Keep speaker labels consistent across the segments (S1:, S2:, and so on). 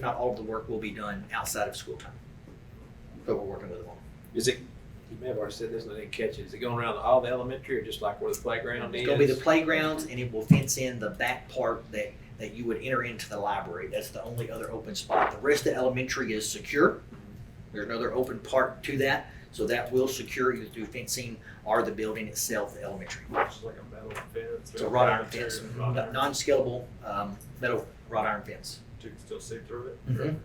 S1: not all of the work will be done outside of school time. But we're working with them on.
S2: Is it, you may have already said this and I didn't catch it. Is it going around all the elementary or just like where the playground is?
S1: It's gonna be the playgrounds and it will fence in the back part that, that you would enter into the library. That's the only other open spot. The rest of elementary is secure. There's another open part to that, so that will secure you through fencing or the building itself, the elementary.
S3: It's like a metal fence.
S1: It's a wrought iron fence, n- non-scalable, um, metal wrought iron fence.
S3: You can still see through it.
S1: Mhm.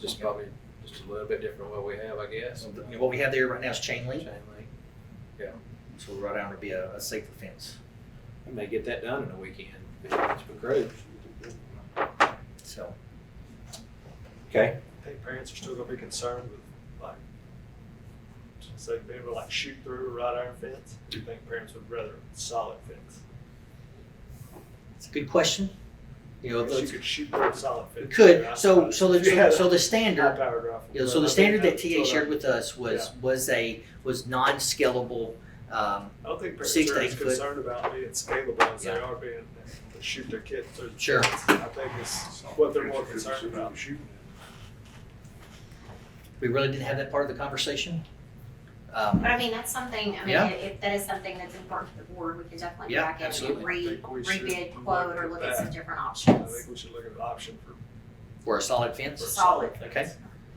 S2: Just probably just a little bit different than what we have, I guess.
S1: So the- you know, what we have there right now is chain link,
S2: Chain link.
S1: so wrought iron would be a, a safer fence.
S2: We may get that done in a weekend. if It's been great.
S1: So,
S2: Okay.
S3: I think parents are still gonna be concerned with like, say, being able to like shoot through a wrought iron fence. I think parents would rather a solid fence.
S1: it's a good question. You know,
S3: Because
S1: it's-
S3: You could shoot through a solid fence.
S1: we could, so, so the,
S3: Yeah,
S1: so- so the standard
S3: High-powered rifle.
S1: Yeah, so
S3: I
S1: the
S3: mean,
S1: standard that
S3: that's
S1: TA
S3: what I-
S1: shared with us was, was a, was non-scalable, um,
S3: I don't think
S1: six
S3: parents
S1: to
S3: are
S1: eight
S3: as
S1: foot.
S3: concerned about being scalable as they
S1: Yeah.
S3: are being, uh, to shoot their kids through. the
S1: Sure.
S3: fence. I think it's what they're more concerned about.
S1: we really didn't have that part of the conversation. Um,
S4: But I mean, that's something, I mean,
S1: Yeah.
S4: if that is something that's important to the board, we can definitely
S1: Yeah,
S4: go back in
S1: absolutely.
S4: and re,
S3: Think we should
S4: rebid
S3: look
S4: quote
S3: at
S4: or look at some
S3: that.
S4: different
S3: I
S4: options.
S3: think we should look at an option for.
S1: for a solid
S3: for a
S1: fence,
S4: Solid.
S1: okay?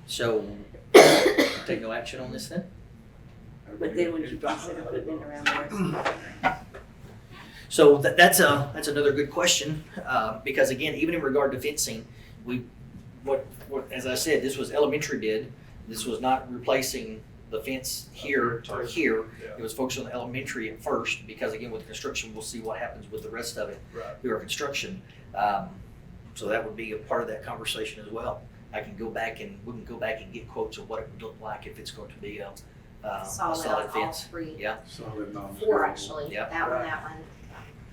S1: So, take no action on this then?
S5: But then would you consider putting it around the rest of the
S1: So that, that's a, that's another good question, uh, because again, even in regard to fencing, we, what, what, as I said, this was elementary bid. This was not replacing the fence here or here. It
S3: Yeah,
S1: was focused on the elementary at first, because again, with the construction, we'll see what happens with the rest of it
S3: right.
S1: through our construction. Um, so that would be a part of that conversation as well. I can go back and, we can go back and get quotes of what it would look like if it's going to be a, uh, a
S4: Solid on
S1: solid
S4: all
S1: fence.
S4: three,
S1: Yeah.
S6: Solid non-scalable.
S4: four actually,
S1: Yeah.
S4: that one,
S3: Right.
S4: that one.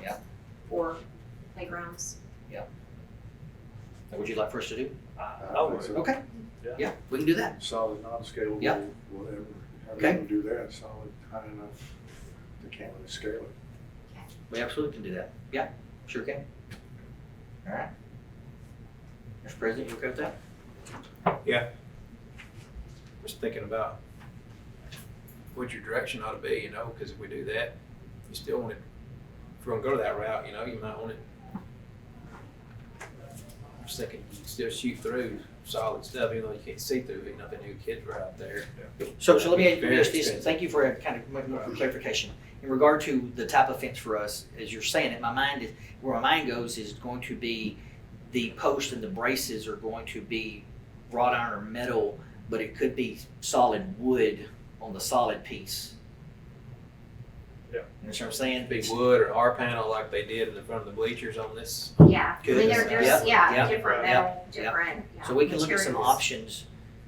S1: Yeah.
S4: Four playgrounds.
S1: That Would you like for us to do?
S3: I would.
S1: Okay.
S3: Yeah.
S1: Yeah, we can do that.
S6: Solid non-scalable,
S1: Yeah.
S6: whatever. How
S1: Okay.
S6: do you do that? Solid high enough, they can't really scale it.
S1: We absolutely can do that. Yeah, sure can. All right. Mr. President, you okay with that?
S2: Just thinking about what your direction ought to be, you know, because if we do that, you still want it, if we're gonna go to that route, you know, you might want it. I'm just thinking, you can still shoot through solid stuff, even though you can't see through it, nothing new kids were out there.
S1: So, so let me
S2: That'd be very
S1: ask this,
S2: expensive.
S1: thank you for uh, kind of much more for clarification. In regard to the type of fence for us, as you're saying it, my mind is, where my mind goes is going to be the post and the braces are going to be wrought iron or metal, but it could be solid wood on the solid piece. You
S3: Yeah.
S1: know what I'm saying?
S2: It'd be wood or R panel like they did in the front of the bleachers on this.
S4: Yeah, I mean,
S2: Good.
S4: there,
S1: Yeah.
S4: there's,
S1: Yeah.
S4: yeah, different
S1: Yeah.
S4: metal, different, yeah.
S1: So we can look at some
S4: materials.
S1: options,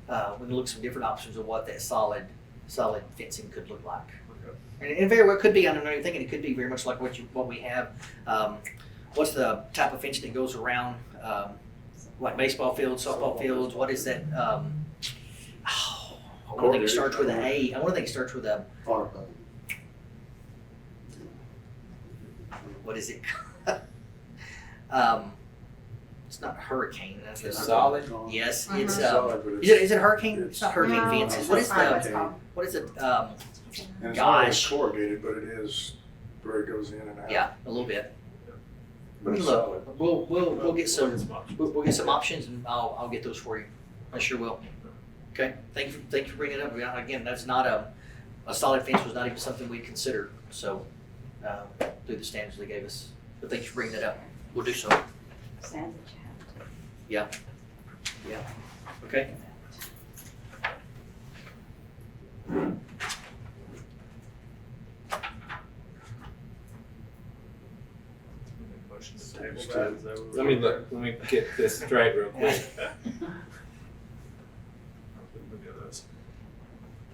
S1: uh, we can look at some different options of what that solid, solid fencing could look like.
S3: Okay.
S1: And it very well could be, I don't know, you're thinking it could be very much like what you, what we have, um, what's the type of fence that goes around, um, like baseball fields, softball fields, what is that, um, oh, I wanna think it starts with an A, I wanna think it starts with a,
S6: Or, uh,
S1: what is it? Um, it's not hurricane, that's.
S2: It's
S1: not-
S2: solid.
S6: non-
S1: Yes, it's, um,
S6: solid, but
S1: is it, is it hurricane, it's not
S6: it's-
S1: hurricane
S4: Uh-huh. No,
S1: fences, what is
S4: that's not Um, what
S1: the,
S4: it's called.
S1: what is it, um,
S6: And it's not really
S1: Gosh.
S6: corrugated, but it is where it goes in and out.
S1: Yeah, a little bit.
S6: But it's
S1: Look,
S6: solid.
S1: We'll, we'll, we'll get some,
S3: options.
S1: we'll, we'll get some options and I'll, I'll get those for you. I sure will. Okay, thank you, thank you for bringing it up. Yeah, Again, that's not a, a solid fence was not even something we considered, so, um, through the standards they gave us. But thank you for bringing that up. We'll do so.
S5: Sad that you have to.
S1: Okay.
S3: Motion to table
S6: Just
S3: that,
S6: to-
S3: is that what we're-
S2: Let me look, let me get this straight real quick.
S3: Maybe others.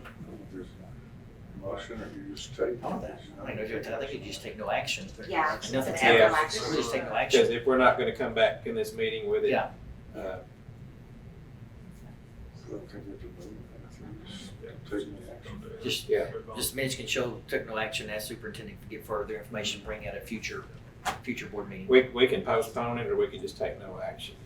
S6: I don't know if there's a Motion or you just take.
S1: I want that. I think you I think you just take no action.
S4: Yeah, it's
S1: Nothing
S4: an
S1: happened.
S2: Yeah.
S4: action.
S1: We just take no action.
S2: Because if we're not gonna come back in this meeting with it.
S1: Yeah.
S2: uh,
S6: I don't think you have to move it. I think you just take the action.
S3: Don't do it.
S1: Just-
S2: Yeah.
S3: Move on.
S1: Just minutes can show, took no action, ask superintendent to get further information, bring out a future future board meeting.
S2: We, we can postpone it or we can just take no action.